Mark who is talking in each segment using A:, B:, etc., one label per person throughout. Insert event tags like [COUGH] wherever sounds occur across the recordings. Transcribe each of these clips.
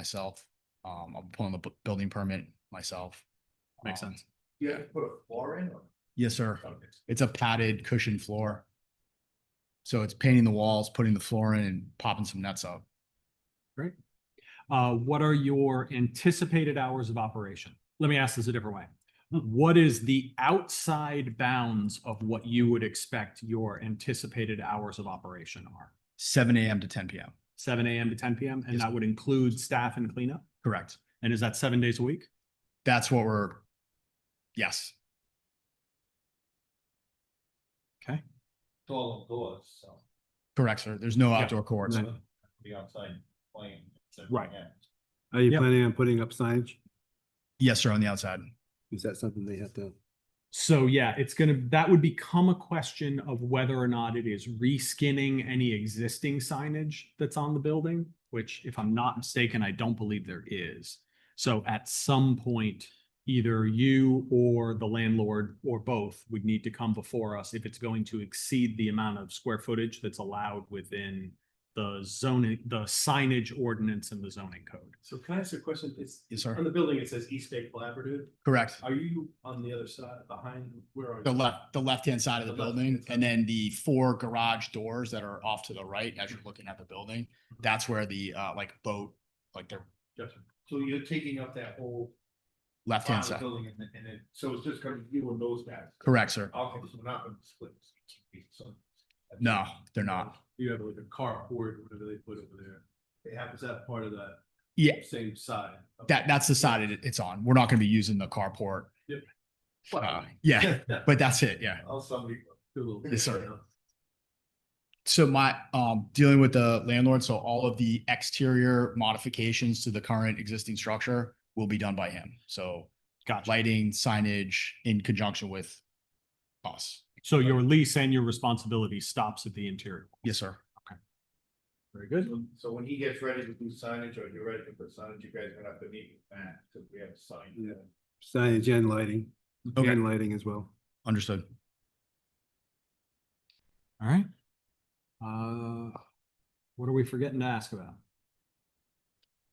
A: myself. Um, I'm pulling the bu- building permit myself.
B: Makes
A: Um,
B: sense.
C: You have to put a floor in or?
A: Yes, sir. It's a padded cushion floor. So it's painting the walls, putting the floor in and popping some nuts up.
B: Uh, what are your anticipated hours of operation? Let me ask this a different way. What is the outside bounds of what you would expect your anticipated hours of operation are?
A: Seven AM to ten PM,
B: Seven AM to ten PM, and
A: Yes.
B: that would include staff and cleanup?
A: correct?
B: And is that seven days a week?
A: That's what we're, yes,
C: It's all indoors, so.
A: correct, sir. There's no
B: Yeah.
A: outdoor courts.
D: Right.
C: The outside playing.
B: Right.
D: Are you
B: Yep.
D: planning on putting up signage?
A: Yes, sir, on the outside.
D: Is that something they have to?
B: So yeah, it's gonna, that would become a question of whether or not it is reskinning any existing signage that's on the building, which if I'm not mistaken, I don't believe there is. So at some point, either you or the landlord or both would need to come before us if it's going to exceed the amount of square footage that's allowed within the zoning, the signage ordinance and the zoning code.
E: So can I ask a question? It's,
A: Yes,
E: on
A: sir,
E: the building, it says East Bay Collaborative.
A: correct.
E: Are you on the other side, behind, where are you?
A: The left, the left-hand side of the
E: The left-hand
A: building
E: side.
A: and then the four garage doors that are off to the right as you're looking at the building. That's where the, uh, like boat, like their
E: Gotcha.
C: So you're taking up that whole.
A: left-hand
C: part
A: side.
C: of the Building and then, and then, so it's just gonna be you and those guys.
A: Correct, sir.
C: Okay, so we're not gonna split. this 18 feet, so-
A: No, they're not.
E: You have like a carport, whatever they put over there.
C: They have
E: Is that part of that?
A: Yeah.
E: Same side? Okay.
A: That, that's
E: [LAUGHS]
A: the side it, it's on. We're not gonna be using the carport.
E: Yep.
A: Uh, yeah, but that's it, yeah.
C: Oh, somebody.
E: Do a little-
A: Yes, sir. So my, um, dealing with the landlord, so all of the exterior modifications to the current existing structure will be done by him. So
B: Gotcha.
A: lighting, signage in conjunction with us.
B: So your lease and your responsibility stops at the interior.
A: Yes, sir.
B: Very good.
C: So- So when he gets ready to do signage or you're ready to put signage, you guys are gonna have to meet with Matt, because we have to sign.
D: Yeah. Signage and lighting,
A: Okay.
D: and lighting as well.
A: Understood.
B: All right. Uh, what are we forgetting to ask about?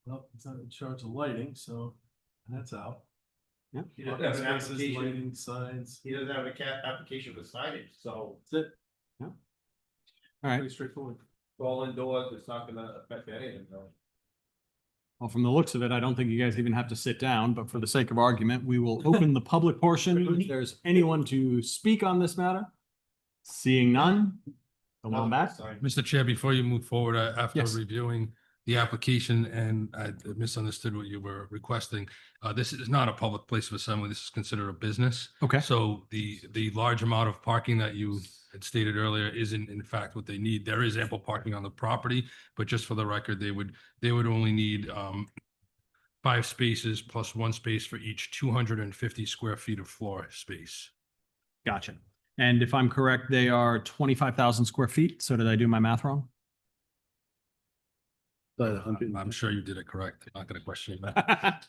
E: Well, it's not in charge of lighting, so that's out.
B: Yeah.
E: He
C: Well,
E: doesn't
C: that's an
E: have his
C: application.
E: Lighting signs,
C: He doesn't have a cat application for signage, so
E: that's it.
B: Yeah. All right.
E: Pretty straightforward.
C: it's all indoors, it's not gonna affect anything, though.
B: Well, from the looks of it, I don't think you guys even have to sit down, but for the sake of argument, we will open the
E: [LAUGHS]
B: public portion. If there's anyone to speak on this matter, seeing none, the one back.
C: Sign.
F: Mr. Chair, before you move forward, uh, after
B: Yes.
F: reviewing the application, and I misunderstood what you were requesting, uh, this is not a public place of assembly. This is considered a business.
B: Okay.
F: So the, the large amount of parking that you had stated earlier isn't in fact what they need. There is ample parking on the property, but just for the record, they would, they would only need um, five spaces plus one space for each two hundred and fifty square feet of floor space.
B: Gotcha. And if I'm correct, they are twenty-five thousand square feet. So did I do my math wrong? [LAUGHS]
D: About a hundred.
F: I'm sure you did it correct. I'm not going to question that.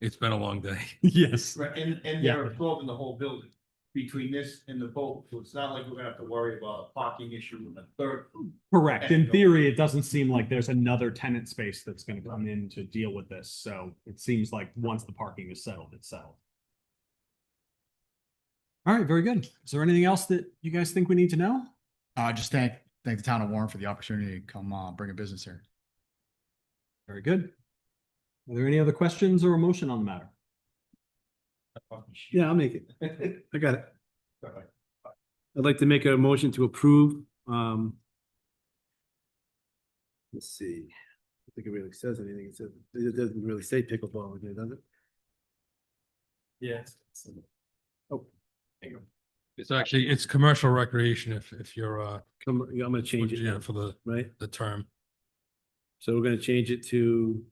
F: It's been a long day.
B: Yes.
C: Right, and, and
B: Yeah.
C: they're absorbing the whole building between this and the boat, so it's not like we're gonna have to worry about a parking issue in the third.
B: Correct. In theory, it doesn't seem like there's another tenant space that's gonna come in to deal with this, so it seems like once the parking is settled, it's settled. All right, very good. Is there anything else that you guys think we need to know?
A: Uh, just thank, thank the town of Warren for the opportunity to come, uh, bring a business here.
B: Very good. Are there any other questions or a motion on the matter?
D: Yeah, I'll make [LAUGHS] it. I got it.
C: Sorry.
D: I'd like to make a motion to approve, um. Let's see. I don't think it really says anything. It says, it doesn't really say pickleball in there, does it?
E: Yes.
F: It's actually, it's commercial recreation if, if you're, uh,
D: Come, yeah, I'm gonna change it,
F: yeah,
D: now,
F: for the,
D: right?
F: the term.
D: So we're gonna change it to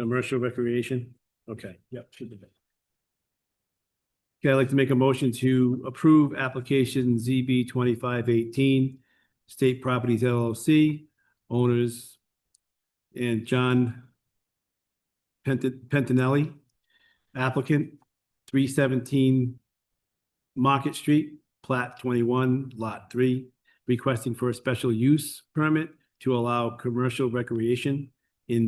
D: commercial recreation? Okay.
E: Yep, should be.
D: Okay, I'd like to make a motion to approve application ZB twenty-five eighteen, State Properties LLC, owners and John Pent- Pentinelli, applicant, three seventeen Market Street, plat twenty-one, lot three, requesting for a special use permit to allow commercial recreation